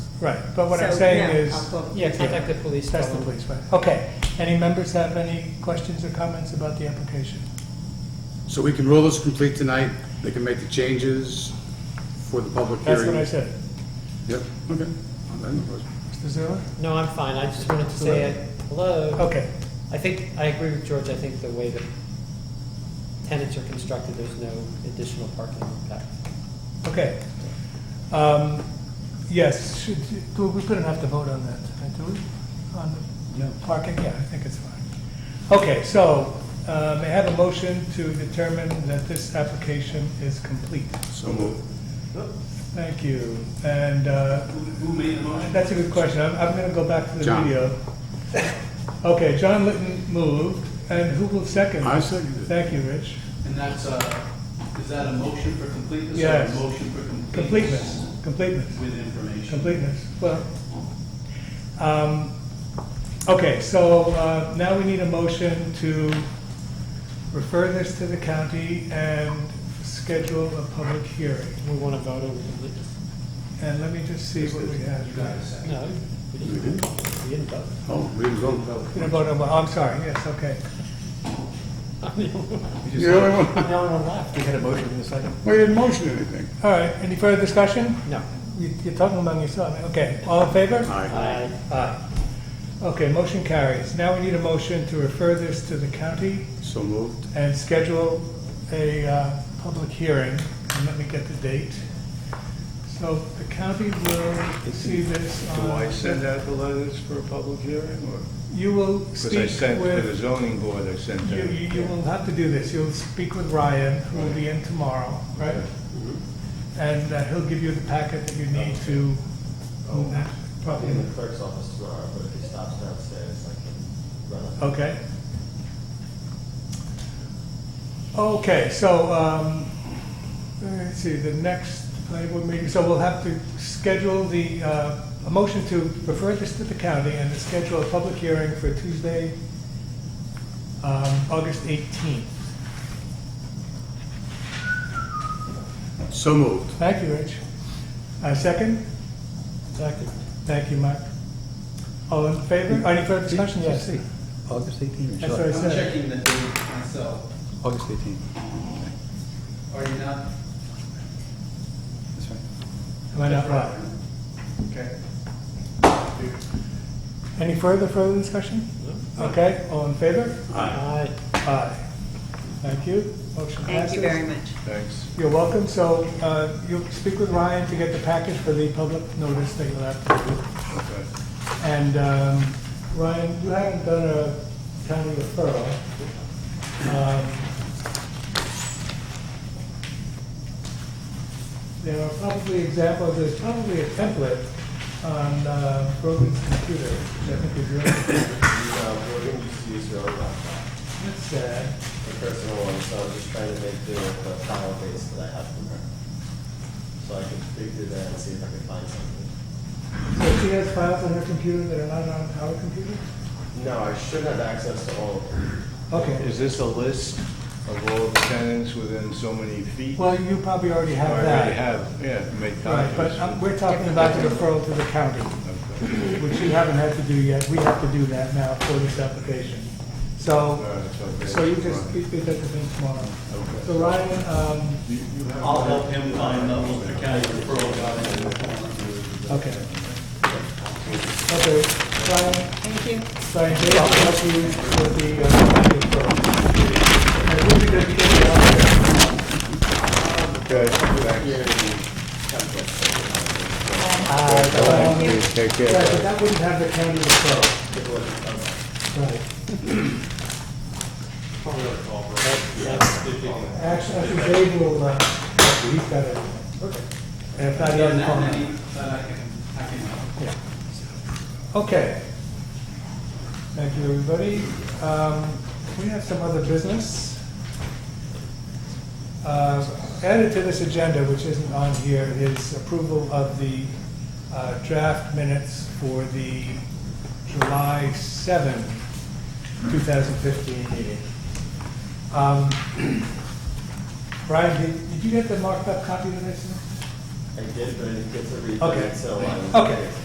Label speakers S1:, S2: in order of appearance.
S1: Right, but what I'm
S2: So,
S1: saying
S2: yeah, I'll
S1: is,
S2: call-
S3: Yeah, contact the police.
S1: that's the
S3: probably.
S1: police, right. Okay, any members have any questions or comments about the application?
S4: So we can rule this complete tonight, they can make the changes for the public hearing?
S1: That's what I said.
S4: Yep, okay. I have no question.
S1: Mr. Zerler?
S3: No, I'm fine. I just wanted to say it. hello.
S1: Okay,
S3: I think, I agree with George. I think the way that tenants are constructed, there's no additional parking impact.
S1: okay. Um, Yes, should, do we couldn't have to vote on that, tonight, do we? On the parking, yeah, I think it's fine. Okay, so, uh, may I have a motion to determine that this application is complete?
S4: So moved.
S1: Thank you, and uh,
S5: Who made the motion?
S1: That's a good question. I'm, I'm gonna go back to the
S4: John.
S1: video. Okay, John Litton moved, and who will second?
S4: I seconded it.
S1: Thank you, Rich.
S5: And that's a, is that a motion for completeness? or
S1: Yes.
S5: a Motion for completeness?
S1: Completeness, completeness,
S5: With information.
S1: completeness, well. um, Okay, so uh, now we need a motion to refer this to the county and schedule a public hearing.
S3: We want to vote on completeness.
S1: And let me just see what we have.
S5: You got a second?
S3: No, we didn't, we didn't vote.
S4: Oh, we didn't vote.
S1: Gonna vote on, oh, I'm sorry, yes, okay.
S3: I'm the only one-
S4: You're the only one.
S3: I'm the only one left.
S6: We had a motion in a second.
S4: We didn't motion anything.
S1: All right, any further discussion?
S3: No.
S1: You- You're talking among yourself, okay. All in favor?
S4: Aye.
S3: I,
S1: Aye. Okay, motion carries. Now we need a motion to refer this to the county
S4: So moved.
S1: and schedule a uh, public hearing. And let me get the date. So the county will see this on...
S7: Do I send out the letters for a public hearing, or?
S1: You will
S7: Because I
S1: speak
S7: sent to the
S1: with,
S7: zoning board, I sent
S1: you,
S7: to,
S1: you you will have to do this. You'll speak with Ryan, who will be in tomorrow, right?
S7: Mm-hmm.
S1: And uh, he'll give you the packet that you need to,
S8: Probably
S1: probably,
S8: in the clerk's office tomorrow, but if he stops downstairs, I can run up.
S1: Okay. Okay, so, um, let's see, the next planning board meeting, so we'll have to schedule the, uh, a motion to refer this to the county and to schedule a public hearing for Tuesday, um, August 18th.
S4: So moved.
S1: Thank you, Rich. Uh, second?
S3: exactly.
S1: Thank you, Mike. All in favor? Any further discussion? Yes.
S6: August 18,
S1: That's what I
S6: sorry,
S1: said.
S5: I'm checking the date myself.
S6: August 18.
S5: Are you not?
S6: That's right.
S1: Am I not right?
S5: Okay.
S1: Any further, further discussion? Okay, all in favor?
S3: I,
S1: Aye. Thank you. Motion passes.
S2: Thank you very much.
S7: thanks.
S1: You're welcome. So uh, you'll speak with Ryan to get the package for the public notice that you'll have to do.
S7: Okay.
S1: And um, Ryan, you haven't done a county referral. Um, There are probably examples, there's probably a template on uh, Brogan's computer, which I think is really,
S8: Uh, we're going to just use your own laptop,
S1: that's sad.
S8: the personal one, so I'm just trying to make do with the file base that I have from her. So I can dig through that and see if I can find something.
S1: So she has files on her computer that are not on our computer?
S8: No, I should have access to all of them.
S1: Okay,
S7: Is this a list of all the tenants within so many feet?
S1: well, you probably already
S7: I
S1: have
S7: already
S1: that.
S7: have, yeah, make
S1: Right, but um,
S7: copies.
S1: we're talking about the referral to the county,
S7: Okay.
S1: which you haven't had to do yet. We have to do that now for this application.
S7: All
S1: So,
S7: right, okay.
S1: so you just, you did the thing tomorrow.
S7: Okay.
S1: So Ryan, um,
S7: You- you have-
S5: I'll help him find the Ulster County referral guide.
S1: okay. Okay, Ryan,
S2: Thank you.
S1: Ryan, Jay, I'll help you with the, uh, county referral. And we'll be good to get you out there.
S7: Okay, thanks.
S1: Um,
S4: Take care.
S1: Right, but that wouldn't have the county referral. Right. Actually, I think Dave will, uh, he's got it. And if not, he has a
S5: Any,
S1: comment.
S5: that I can, I can help.
S1: Okay. Thank you, everybody. Um, We have some other business. Uh, Added to this agenda, which isn't on here, is approval of the uh, draft minutes for the July 7, 2015 meeting. Um, Brian, did did you get the marked up copy of this?
S8: I did, but I didn't get to read
S1: Okay.
S8: it, so I'm.
S1: Okay.